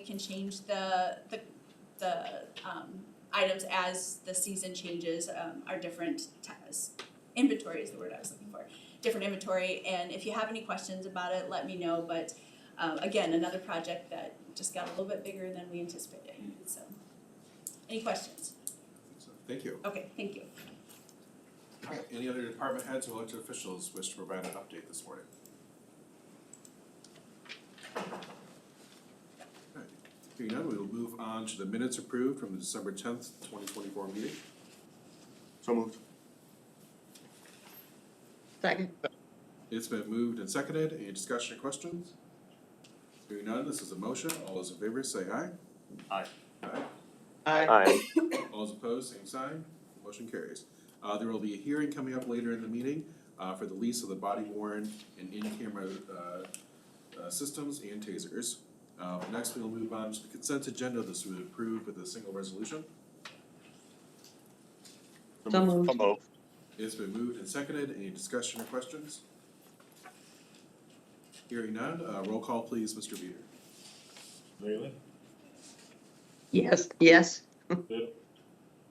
We can change the, the, the, um, items as the season changes, um, our different tabs. Inventory is the word I was looking for, different inventory, and if you have any questions about it, let me know, but, um, again, another project that just got a little bit bigger than we anticipated, so. Any questions? So, Thank you. Okay, thank you. Okay, Any other department heads or elected officials wish to provide an update this morning? All right, Hearing none, we will move on to the minutes approved from the December tenth, twenty twenty-four meeting. So moved. Second. It's been moved and seconded. Any discussion or questions? Hearing none, this is a motion. All those in favor say aye. Aye. Aye. Aye. Aye. All those opposed, same sign, motion carries. Uh, there will be a hearing coming up later in the meeting, uh, for the lease of the body worn and in-camera, uh, uh, systems and tasers. Uh, next, we'll move on to the consent agenda, this was approved with a single resolution. So moved. So moved. It's been moved and seconded, any discussion or questions? Hearing none, uh, roll call please, Mr. Beater. Bailey, Yes, yes, Little,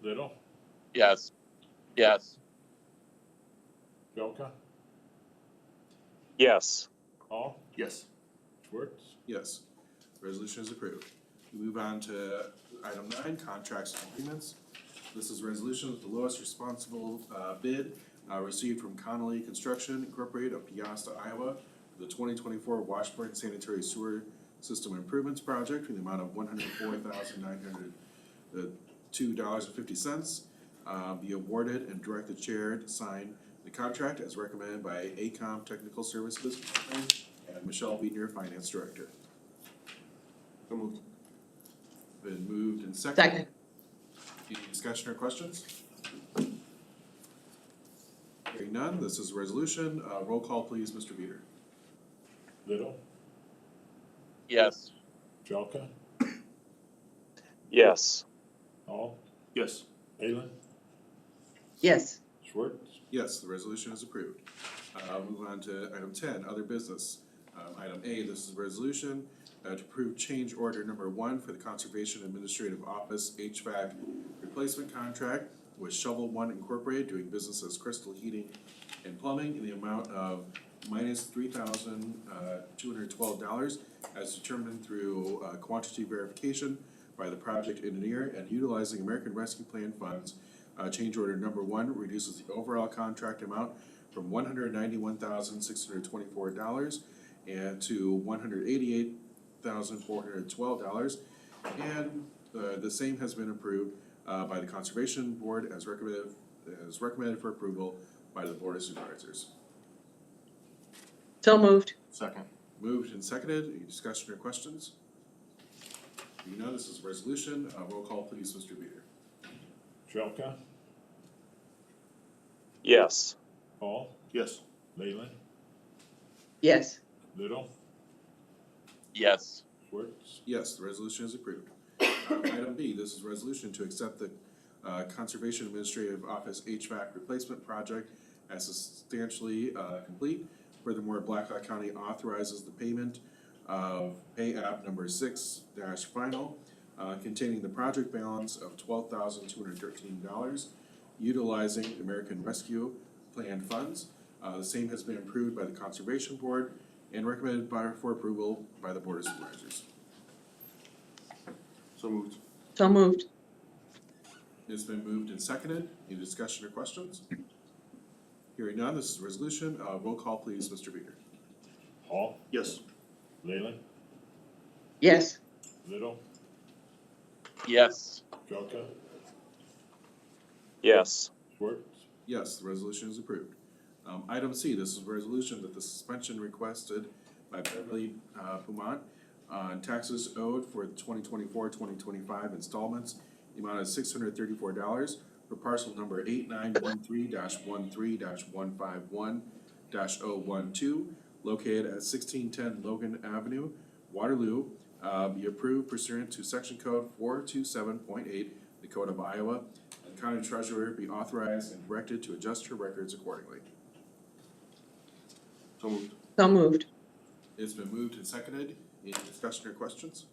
Little, Yes. Yes. Jelka, Yes. Hall, Yes. Schwartz, Yes, resolution is approved. We move on to item nine, contracts and agreements. This is resolution with the lowest responsible uh, bid uh, received from Connolly Construction Incorporated of Piasta, Iowa, for the twenty twenty-four Washburn Sanitary Sewer System Improvements Project in the amount of one hundred four thousand nine hundred two dollars and fifty cents. uh, Be awarded and direct the chair to sign the contract as recommended by ACOM Technical Services and Michelle Beener, Finance Director. So moved. Been moved and seconded. second. Any discussion or questions? Hearing none, this is a resolution, uh, roll call please, Mr. Beater. Little, Yes. Jelka, Yes. Hall, Yes. Balin, Yes, Schwartz, Yes, the resolution is approved. Uh, move on to item ten, other business. Um, item A, this is a resolution, uh, to approve change order number one for the Conservation Administrative Office HVAC replacement contract with Shovel One Incorporated doing business as Crystal Heating and Plumbing in the amount of minus three thousand, uh, dollars as determined through, uh, quantity verification by the project engineer and utilizing American Rescue Plan funds uh, change order number one reduces the overall contract amount from one hundred ninety-one thousand six hundred twenty-four dollars and to one hundred eighty-eight thousand four hundred twelve dollars. And, uh, the same has been approved, uh, by the Conservation Board as recommended, as recommended for approval by the Board of Supervisors. so moved. Second. Moved and seconded, any discussion or questions? You know, this is a resolution, uh, roll call please, Mr. Beater. Jelka, Yes. Hall, Yes. Balin, Yes, Little, Yes. Schwartz, Yes, the resolution is approved. Um, Item B, this is resolution to accept the uh, Conservation Administrative Office HVAC replacement project as substantially uh, complete. Furthermore, Blackhawk County authorizes the payment of pay app number six dash final uh, containing the project balance of twelve thousand two hundred thirteen dollars utilizing American Rescue Plan funds. Uh, The same has been approved by the Conservation Board and recommended by, for approval by the Board of Supervisors. So moved. so moved. It's been moved and seconded. Any discussion or questions? Hearing none, this is a resolution. Uh, roll call please, Mr. Beater. Hall, Yes. Balin, Yes, Little, Yes. Jelka, Yes. Schwartz, Yes, the resolution is approved. Um, item C, this is a resolution that the suspension requested by Beverly, uh, Pumont on taxes owed for 2024-2025 installments, the amount of six hundred thirty-four dollars for parcel number eight nine one three dash one three dash one five one dash oh one two, located at sixteen ten Logan Avenue, Waterloo, uh, be approved pursuant to section code four two seven point eight, the Code of Iowa, the county treasurer be authorized and directed to adjust her records accordingly. So moved. so moved. It's been moved and seconded. Any discussion or questions?